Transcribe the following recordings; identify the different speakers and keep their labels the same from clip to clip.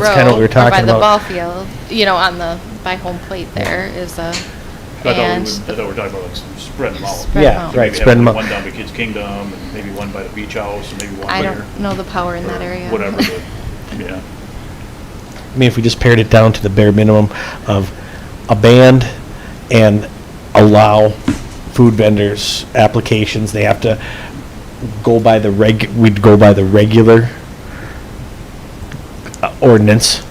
Speaker 1: That's kinda what we were
Speaker 2: row, or
Speaker 1: talking about.
Speaker 2: By the ball field, you know, on the, by home plate there is a,
Speaker 3: I thought we
Speaker 2: and,
Speaker 3: was- I thought we were talking about like some spread them out.
Speaker 2: Spread
Speaker 1: Yeah,
Speaker 2: 'em out.
Speaker 3: So
Speaker 1: right,
Speaker 3: maybe
Speaker 1: spread
Speaker 3: having
Speaker 1: 'em out.
Speaker 3: One down by Kids Kingdom, and maybe one by the beach house, and maybe one
Speaker 2: I
Speaker 3: by your.
Speaker 2: don't know the power in that
Speaker 3: or
Speaker 2: area.
Speaker 3: Whatever, the- yeah.
Speaker 1: I mean, if we just pared it down to the bare minimum of a band and allow food vendors applications, they have to go by the reg, we'd go by the regular uh, ordinance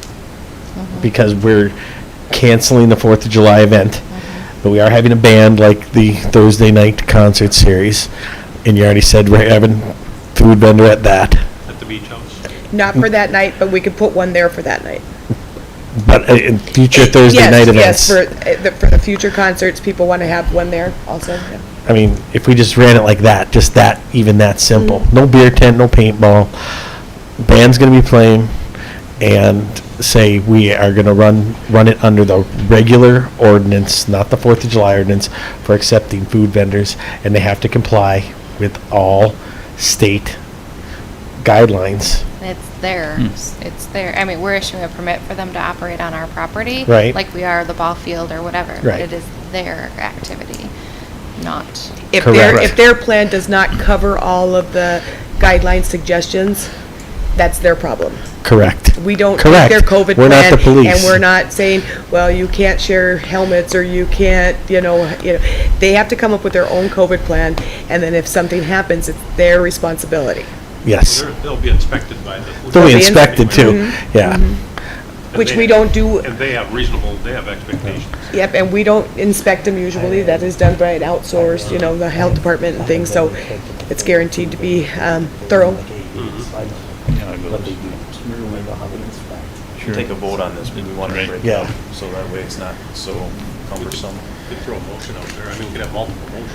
Speaker 1: because we're canceling the Fourth of July event. But we are having a band like the Thursday night concert series. And you already said we're having food vendor at that.
Speaker 4: At the beach house?
Speaker 5: Not for that night, but we could put one there for that night.
Speaker 1: But uh, in future Thursday
Speaker 5: Yes,
Speaker 1: night events.
Speaker 5: Yes, for, uh, the- for the future concerts, people want to have one there also. yeah.
Speaker 1: I mean, if we just ran it like that, just that, even that simple.
Speaker 5: Mm-hmm.
Speaker 1: No beer tent, no paintball. Band's gonna be playing, and say we are gonna run run it under the regular ordinance, not the Fourth of July ordinance, for accepting food vendors, and they have to comply with all state guidelines.
Speaker 2: it's there,
Speaker 1: Hmm.
Speaker 2: it's there. I mean, we're issuing a permit for them to operate on our property.
Speaker 1: Right.
Speaker 2: Like we are the ball field or whatever. but
Speaker 1: Right.
Speaker 2: It is their activity, not,
Speaker 5: If their,
Speaker 1: Correct.
Speaker 5: if their plan does not cover all of the guideline suggestions, that's their problem.
Speaker 1: Correct.
Speaker 5: We don't take
Speaker 1: Correct.
Speaker 5: their COVID plan.
Speaker 1: We're not the police.
Speaker 5: And we're not saying, well, you can't share helmets, or you can't, you know, you know. They have to come up with their own COVID plan, and then if something happens, it's their responsibility.
Speaker 1: Yes.
Speaker 4: They're- They'll be inspected by the.
Speaker 1: They'll be
Speaker 5: They'll be
Speaker 1: inspected too.
Speaker 5: Mm-hmm.
Speaker 1: Yeah.
Speaker 4: And
Speaker 5: Which
Speaker 4: they-
Speaker 5: we don't do,
Speaker 4: And they have reasonable, they have expectations.
Speaker 5: yep, and we don't inspect them usually. That is done by an outsourced, you know, the health department and things, so it's guaranteed to be um, thorough.
Speaker 3: Yeah, I go-
Speaker 6: Sure. Take a vote on this, but we want to
Speaker 3: Right.
Speaker 6: break it
Speaker 1: Yeah.
Speaker 6: up, so that way it's not so cumbersome.
Speaker 4: Could throw a motion out there. I mean, we could have multiple motions.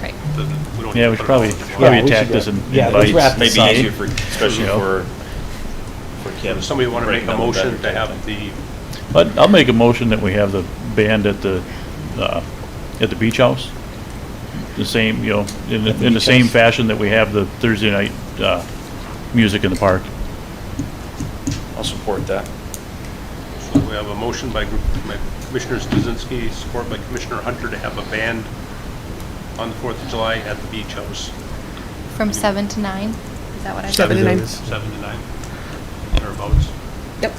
Speaker 2: right.
Speaker 4: Doesn't- don't
Speaker 3: Yeah,
Speaker 4: need to put
Speaker 3: we should
Speaker 4: it
Speaker 3: probably,
Speaker 4: all
Speaker 3: should
Speaker 4: together.
Speaker 3: probably
Speaker 1: we
Speaker 3: attack
Speaker 1: should-
Speaker 3: this in
Speaker 1: yeah,
Speaker 3: in
Speaker 1: let's wrap
Speaker 3: bites.
Speaker 1: this
Speaker 6: Maybe
Speaker 1: up.
Speaker 6: easier for, especially
Speaker 3: Yeah.
Speaker 6: for, for Kim.
Speaker 4: Does Somebody want to make
Speaker 6: breaking
Speaker 4: a
Speaker 6: down the
Speaker 4: motion to
Speaker 6: better-
Speaker 4: have the,
Speaker 3: But I'll make a motion that we have the band at the, uh, at the beach house. The same, you know, in, the- in the same fashion that we have the Thursday night, uh, music in the park.
Speaker 6: I'll support that.
Speaker 4: so we have a motion by Group- by Commissioner Stuzinski, support by Commissioner Hunter to have a band on the Fourth of July at the beach house,
Speaker 2: From seven to nine, is that what I said?
Speaker 5: Seven to nine.
Speaker 4: seven to nine, thereabouts.
Speaker 5: Yep.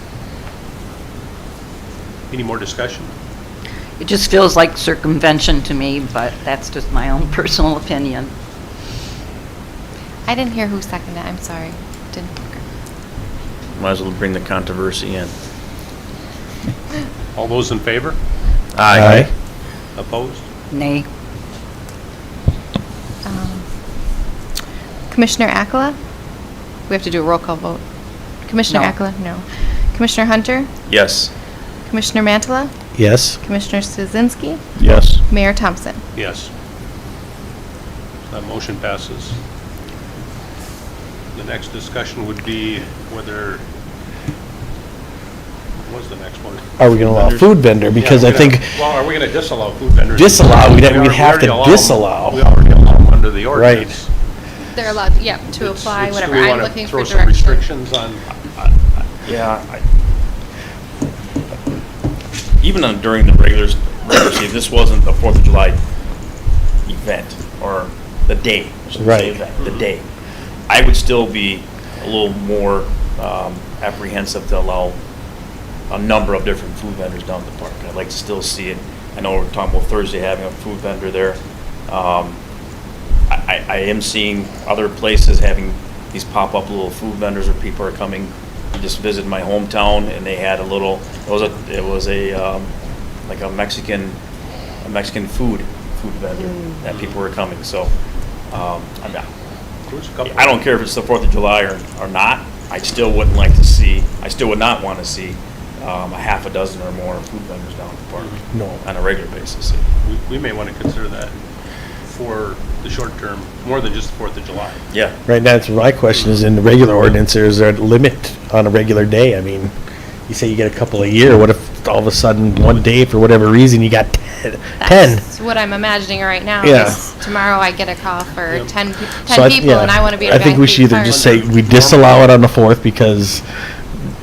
Speaker 4: Any more discussion?
Speaker 7: It just feels like circumvention to me, but that's just my own personal opinion.
Speaker 2: I didn't hear who seconded it, I'm sorry. Didn't,
Speaker 6: Might as well bring the controversy in.
Speaker 4: All those in favor?
Speaker 1: Aye.
Speaker 4: Opposed?
Speaker 7: Nay.
Speaker 2: um, Commissioner Akala? We have to do a roll call vote. Commissioner
Speaker 7: No.
Speaker 2: Akala, no. Commissioner Hunter?
Speaker 6: Yes.
Speaker 2: Commissioner Mantala?
Speaker 1: Yes.
Speaker 2: Commissioner Stuzinski?
Speaker 3: Yes.
Speaker 2: Mayor Thompson?
Speaker 4: Yes. That motion passes. The next discussion would be whether, what was the next one?
Speaker 1: Are we gonna allow food vendor? Because
Speaker 4: Yeah,
Speaker 1: I
Speaker 4: we're gonna-
Speaker 1: think
Speaker 4: Well, are we going to disallow food vendors?
Speaker 1: Disallow, we'd-
Speaker 4: We are-
Speaker 1: we'd
Speaker 4: we
Speaker 1: have
Speaker 4: already
Speaker 1: to
Speaker 4: allow 'em.
Speaker 1: disallow.
Speaker 4: We already allow them under the ordinance.
Speaker 2: They're allowed, yeah, to
Speaker 4: It's-
Speaker 2: apply,
Speaker 4: it's-
Speaker 2: whatever.
Speaker 4: Do we
Speaker 2: I'm
Speaker 4: want
Speaker 2: looking
Speaker 4: to
Speaker 2: for
Speaker 4: throw some
Speaker 2: direction.
Speaker 4: restrictions on,
Speaker 6: Yeah. I- Even on- during the regulars, regular season, this wasn't the Fourth of July event, or the day, I should
Speaker 1: Right.
Speaker 6: say, event, the day. I would still be a little more um, apprehensive to allow a number of different food vendors down at the park. I'd like to still see it, I know we're talking about Thursday having a food vendor there. Um, I, I I am seeing other places having these pop-up little food vendors where people are coming. I just visited my hometown and they had a little, it was a, it was a, um, like a Mexican, a Mexican food, food vendor that people were coming, so, um, I'm not,
Speaker 4: there's a couple.
Speaker 6: I don't care if it's the Fourth of July or, or not, I still wouldn't like to see, I still would not want to see, um, a half a dozen or more food vendors down at the park.
Speaker 1: No.
Speaker 6: On a regular basis.
Speaker 4: We- We may want to consider that for the short term, more than just the Fourth of July.
Speaker 6: Yeah,
Speaker 1: Right, now, that's my question, is in the regular ordinance, or is there a limit on a regular day? I mean, you say you get a couple a year, what if all of a sudden, one day, for whatever reason, you got ten? Ten.
Speaker 2: That's what I'm imagining right now.
Speaker 1: Yeah.
Speaker 2: is Tomorrow I get a call for
Speaker 4: Yep.
Speaker 2: 10, pe-
Speaker 1: So
Speaker 2: 10 people
Speaker 1: yeah,
Speaker 2: and I want to be at
Speaker 1: I think we
Speaker 2: Backgate
Speaker 1: should either
Speaker 2: Park.
Speaker 1: just say, we disallow it on the fourth because